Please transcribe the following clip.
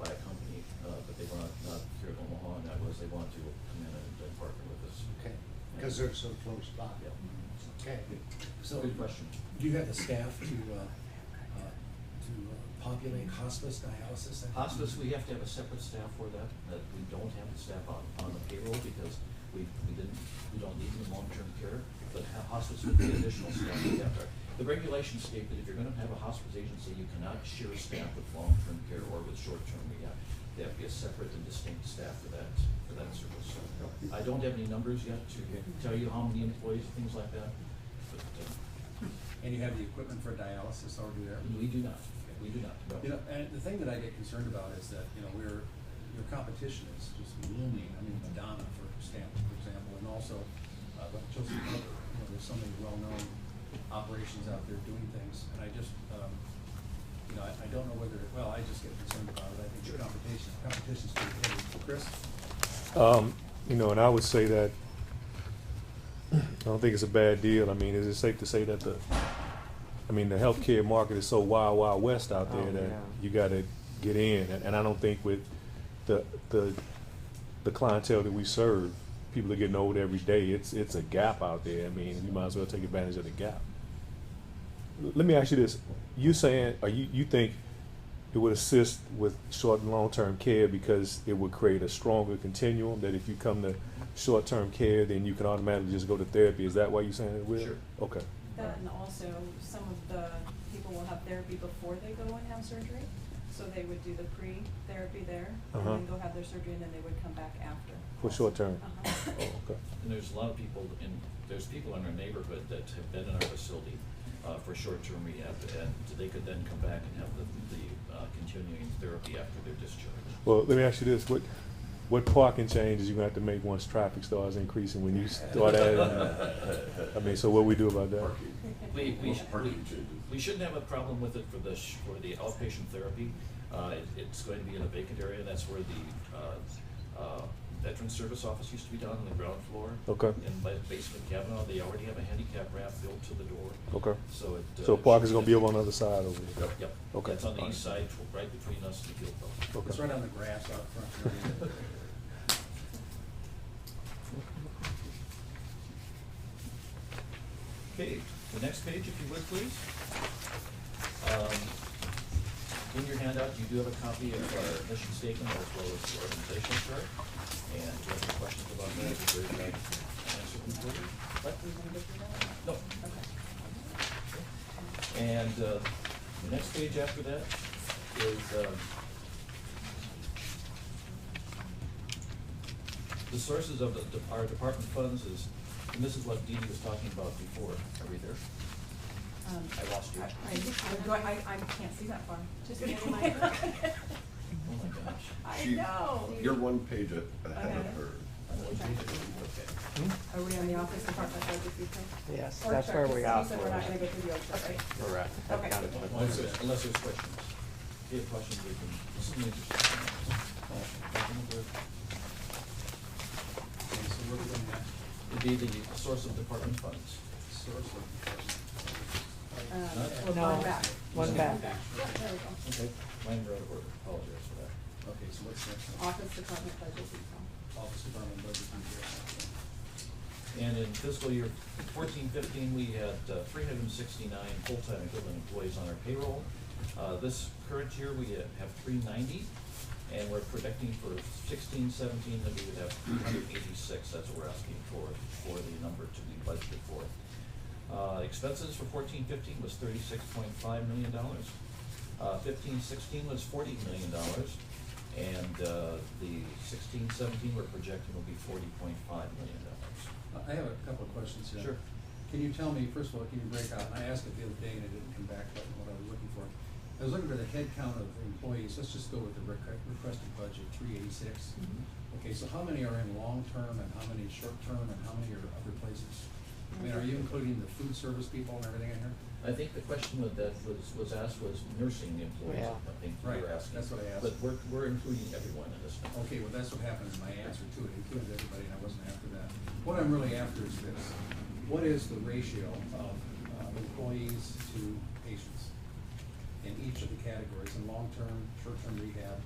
uh, if they want to, will come in and and partner with us. Okay, because they're so close by. Yeah. Okay, So, Good question. do you have the staff to, uh, uh, to uh, populate hospice dialysis? centers? Hospice, we have to have a separate staff for that, that we don't have the staff on, on the payroll because we, we didn't, we don't need them in long-term care, but ho- hospice would be additional staff we have there. The regulations state that if you're gonna have a hospice agency, you cannot share staff with long-term care or with short-term rehab. They have to be a separate and distinct staff for that, for that service. I don't have any numbers yet to tell you how many employees, things like that, but, uh, And you have the equipment for dialysis already there? we do not, we do not, no. You know, and the thing that I get concerned about is that, you know, we're, your competition is just looming. I mean, Madonna, for example, for example, and also, uh, but Chelsea Cutler, you know, there's so many well-known operations out there doing things. And I just, um, you know, I, I don't know whether, well, I just get concerned about it. I think your competition, competition's too heavy. Chris? Um, you know, and I would say that, I don't think it's a bad deal. I mean, is it safe to say that the, I mean, the healthcare market is so wild, wild west out there Oh, that yeah. you gotta get in, and, and I don't think with the, the, the clientele that we serve, people are getting old every day, it's, it's a gap out there. I mean, you might as well take advantage of the gap. L- Let me ask you this, you saying, or you, you think it would assist with short and long-term care because it would create a stronger continuum that if you come to short-term care, then you can automatically just go to therapy. Is that why you're saying it will? Sure. Okay. That and also, some of the people will have therapy before they go and have surgery, so they would do the pre-therapy there, and Uh-huh. then go have their surgery, and then they would come back after. For short-term? Uh-huh. Oh, okay. And there's a lot of people in, there's people in our neighborhood that have been in our facility uh, for short-term rehab, and they could then come back and have the, the uh, continuing therapy after their discharge. Well, let me ask you this, what, what parking changes you gonna have to make once traffic starts increasing when you start adding? I mean, so what we do about that? We, we, sh- we, Parking changes. we shouldn't have a problem with it for the, sh- for the outpatient therapy. Uh, it- It's going to be in a vacant area, that's where the uh, uh, Veteran Service Office used to be down on the ground floor. Okay. In ba- basement cabin, they already have a handicap ramp built to the door. Okay. So it. So uh, parking's shouldn't gonna be have- over on the other side over there? Yep. Okay. It's on the All east side, tw- right between us and the Guild Hall. Okay. It's right on the grass out front. Okay, the next page, if you would, please. Um, In your handout, you do have a copy of our mission statement as well as the organizational chart. And if you have any questions about that, we'd be very glad to answer them for you. But we want to get through that? No. Okay. And uh, the next page after that is um, the sources of the, our department funds is, and this is what Dee Dee was talking about before. Are we there? Um, I lost you. I, I- do I, I, I can't see that far. Just give me my book. Oh my gosh. I She- know. You're one page a- ahead of Okay. her. I'm going to read it. Okay. Are we on the office department budget before? Yes, Org that's chart, just- where we you are. said we're not gonna go through the org chart, right? Correct. I've Okay. got it. Unless there's, unless there's questions. If you have questions, we can, this is an interesting. Okay, so where are we going next? It'd be the source of department funds. Source of- Um, No. one back. One back. Yeah, there we go. Okay. Mine were out of order. Apologize for that. Okay, so what's next? Office department budget detail. Office Department Budget Review. And in fiscal year fourteen fifteen, we had uh, three hundred and sixty-nine full-time equivalent employees on our payroll. Uh, This current year, we ha- have three ninety, and we're predicting for sixteen seventeen that we would have three hundred eighty-six. That's what we're asking for, for the number to be budgeted for. Uh, Expenses for fourteen fifteen was thirty-six point five million dollars. Uh, Fifteen sixteen was forty million dollars, and uh, the sixteen seventeen we're projecting will be forty point five million dollars. I have a couple of questions here. Sure. Can you tell me, first of all, can you break out, and I asked it the other day and it didn't come back, but what I was looking for. I was looking for the head count of employees, let's just go with the requ- requested budget, three eighty-six. Okay, so how many are in long-term and how many short-term and how many are other places? I mean, are you including the food service people and everything in here? I think the question with that was, was asked was nursing employees, Yeah. I think you were Right, asking. that's what I asked. Oh, But we're, we're including everyone in this. now. Okay, well, that's what happened in my answer to it, included everybody, and I wasn't after that. What I'm really after is this, what is the ratio of uh, employees to patients in each of the categories, in long-term, short-term rehab,